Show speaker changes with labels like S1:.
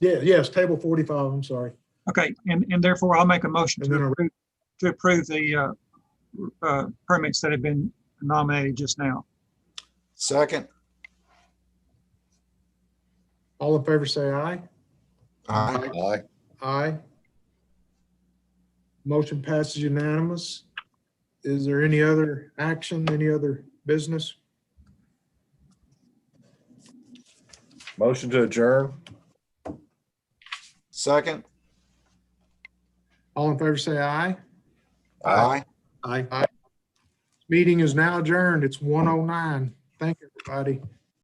S1: Yeah, yes, table forty-five, I'm sorry.
S2: Okay, and, and therefore I'll make a motion
S1: And
S2: to
S1: then a-
S2: approve, to approve the, uh, uh, permits that have been nominated just now.
S3: Second.
S1: All in favor, say aye.
S3: Aye.
S4: Aye.
S1: Aye. Motion passes unanimous. Is there any other action, any other business?
S4: Motion to adjourn.
S3: Second.
S1: All in favor, say aye.
S3: Aye.
S1: Aye. Aye. Meeting is now adjourned. It's one oh nine. Thank you, everybody.